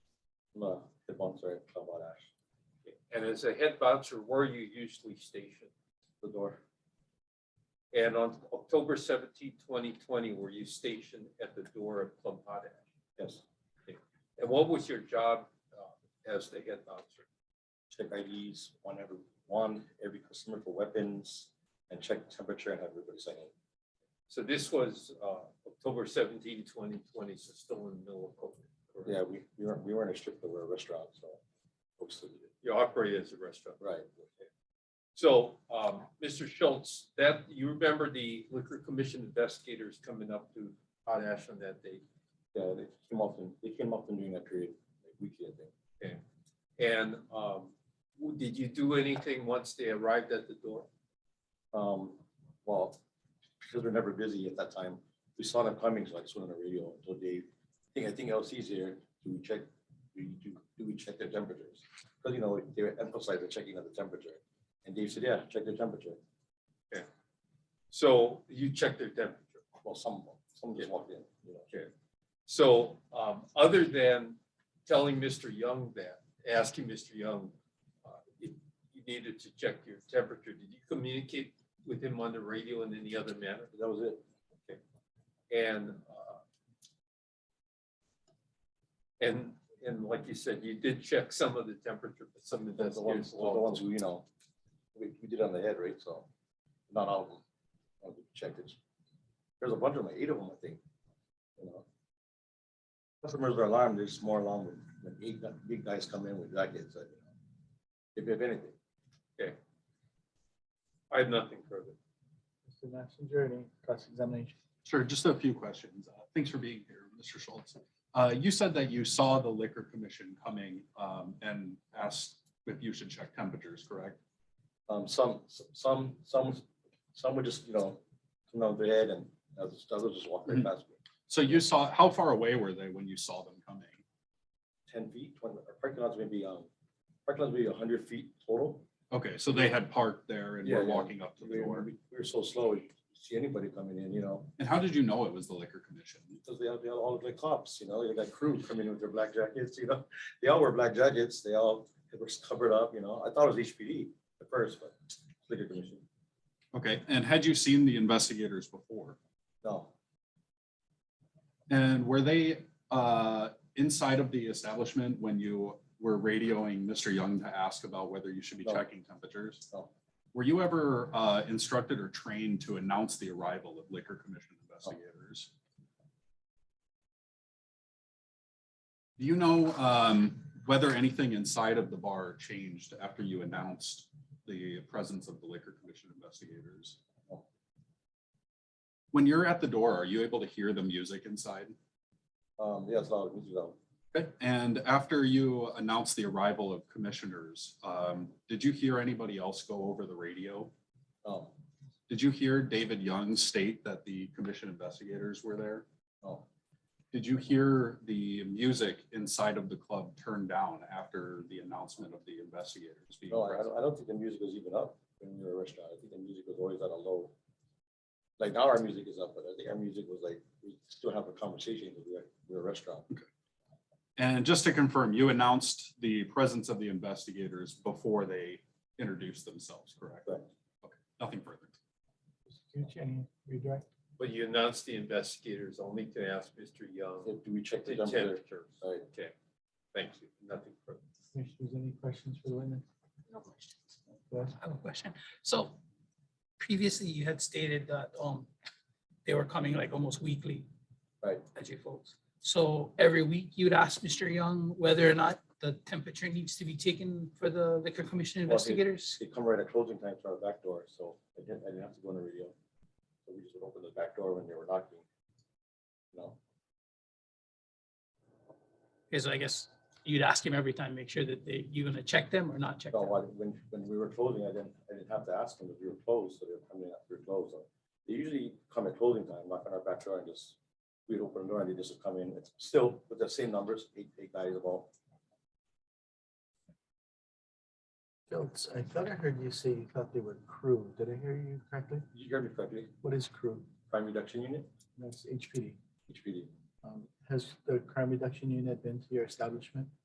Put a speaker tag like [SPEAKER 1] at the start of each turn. [SPEAKER 1] No, the bouncer at Kabarash,
[SPEAKER 2] And as a head bouncer, where are you usually stationed?
[SPEAKER 1] the door,
[SPEAKER 2] And on October 17, 2020, were you stationed at the door of Plum Potash?
[SPEAKER 1] yes,
[SPEAKER 2] And what was your job uh, as the head bouncer?
[SPEAKER 1] check IDs one every, one every customer for weapons and check temperature and have everybody sign in.
[SPEAKER 2] So this was uh, October 17, 2020, so still in the middle of COVID. correct?
[SPEAKER 1] Yeah, we, we weren't, we weren't a strip, club, we were a restaurant, so. folks still eat it.
[SPEAKER 2] You operated as a restaurant.
[SPEAKER 1] Right.
[SPEAKER 2] So, um, Mr. Schultz, that, you remember the liquor commission investigators coming up to Potash on that day?
[SPEAKER 1] Yeah, they came often, they came often during that period, like weekly, I think.
[SPEAKER 2] And um, w- did you do anything once they arrived at the door?
[SPEAKER 1] Um, well, because we're never busy at that time, we saw them coming, so I just went on the radio and told Dave, I think, I think LC's here, do we check, do, you- do, do we check their temperatures? Because, you know, they were emphasizing the checking of the temperature, and Dave said, yeah, check their temperature,
[SPEAKER 2] So you checked their temperature.
[SPEAKER 1] well, some, some just walked in, you know.
[SPEAKER 2] So, um, other than telling Mr. Young that, asking Mr. Young, uh, if you needed to check your temperature, did you communicate with him on the radio in any other manner?
[SPEAKER 1] That was it,
[SPEAKER 2] And, uh, and, and like you said, you did check some of the temperature, but some of
[SPEAKER 1] that's the ones,
[SPEAKER 2] investigators
[SPEAKER 1] the ones who, you know, we, we did on the head, right, so, not all of them. uh, we Checked it, there's a bunch of them, eight of them, I think, you know. Customers are alarmed, there's more alarm when, when big, gu- big guys come in with jackets, uh, you know, if you have anything.
[SPEAKER 2] I have nothing further.
[SPEAKER 3] Mr. Messenger, any cross-examination?
[SPEAKER 4] Sure, just a few questions. Uh, Thanks for being here, Mr. Schultz. Uh, You said that you saw the liquor commission coming um, and asked if you should check temperatures, correct?
[SPEAKER 1] Um, some, some, some, some would just, you know, come down the head and others, others just walk right
[SPEAKER 4] Mhm.
[SPEAKER 1] past me,
[SPEAKER 4] So you saw, how far away were they when you saw them coming?
[SPEAKER 1] ten feet, twenty, our parking lots maybe, um, parking lots maybe a hundred feet total.
[SPEAKER 4] Okay, so they had parked there and
[SPEAKER 1] Yeah,
[SPEAKER 4] were
[SPEAKER 1] yeah.
[SPEAKER 4] walking up to the
[SPEAKER 1] We were,
[SPEAKER 4] door.
[SPEAKER 1] we were so slow, you see anybody coming in, you know,
[SPEAKER 4] And how did you know it was the liquor commission?
[SPEAKER 1] because they have, they have all of the cops, you know, they got crew coming in with their black jackets, you know. They all wear black jackets, they all, it was covered up, you know, I thought it was HPD at first, but liquor commission,
[SPEAKER 4] Okay, and had you seen the investigators before?
[SPEAKER 1] no.
[SPEAKER 4] And were they uh, inside of the establishment when you were radioing Mr. Young to ask about whether you should be
[SPEAKER 1] No.
[SPEAKER 4] checking temperatures?
[SPEAKER 1] No.
[SPEAKER 4] Were you ever uh, instructed or trained to announce the arrival of liquor commission investigators? Do you know um, whether anything inside of the bar changed after you announced the presence of the liquor commission investigators?
[SPEAKER 1] No.
[SPEAKER 4] When you're at the door, are you able to hear the music inside?
[SPEAKER 1] Um, yeah, it's loud, music loud.
[SPEAKER 4] Okay, and after you announced the arrival of commissioners, um, did you hear anybody else go over the radio?
[SPEAKER 1] No,
[SPEAKER 4] Did you hear David Young state that the commission investigators were there?
[SPEAKER 1] no,
[SPEAKER 4] Did you hear the music inside of the club turned down after the announcement of the investigators being
[SPEAKER 1] no, I- I
[SPEAKER 4] present?
[SPEAKER 1] don't, I don't think the music was even up when we were a restaurant, I think the music was always at a low. Like now our music is up, but I think our music was like, we still have a conversation, because we're, we're a restaurant,
[SPEAKER 4] And just to confirm, you announced the presence of the investigators before they introduced themselves, correct?
[SPEAKER 1] Correct.
[SPEAKER 4] Okay, nothing further.
[SPEAKER 3] Mr. Tucci, any redirect?
[SPEAKER 2] But you announced the investigators only to ask Mr. Young
[SPEAKER 1] do we check
[SPEAKER 2] the
[SPEAKER 1] the temperature?
[SPEAKER 2] temperatures.
[SPEAKER 1] Right.
[SPEAKER 2] Okay, thank you, nothing further.
[SPEAKER 3] Commissioners, any questions for the witness?
[SPEAKER 5] No questions.
[SPEAKER 3] Yes.
[SPEAKER 5] I have a question. So previously you had stated that um they were coming like almost weekly.
[SPEAKER 1] Right.
[SPEAKER 5] As you folks. So every week you'd ask Mr. Young whether or not the temperature needs to be taken for the liquor commission
[SPEAKER 1] Well, he-
[SPEAKER 5] investigators?
[SPEAKER 1] they come right at closing time to our back door, so I didn't, I didn't have to go on the radio. So we just would open the back door when they were knocking. You know,
[SPEAKER 5] Because I guess you'd ask him every time, make sure that they, you're gonna check them or not check
[SPEAKER 1] no,
[SPEAKER 5] them.
[SPEAKER 1] when, when- when we were closing, I didn't, I didn't have to ask them if we were closed, so they were coming after we were closed. So They usually come at closing time, knock on our back door and just, we'd open the door and they just would come in, it's still with the same numbers, eight, eight guys about.
[SPEAKER 3] Schultz, I thought I heard you say you thought they were crew. Did I hear you correctly?
[SPEAKER 1] You heard me correctly,
[SPEAKER 3] What is crew?
[SPEAKER 1] crime reduction unit,
[SPEAKER 3] That's HPD.
[SPEAKER 1] HPD.
[SPEAKER 3] Um, Has the crime reduction unit been to your establishment?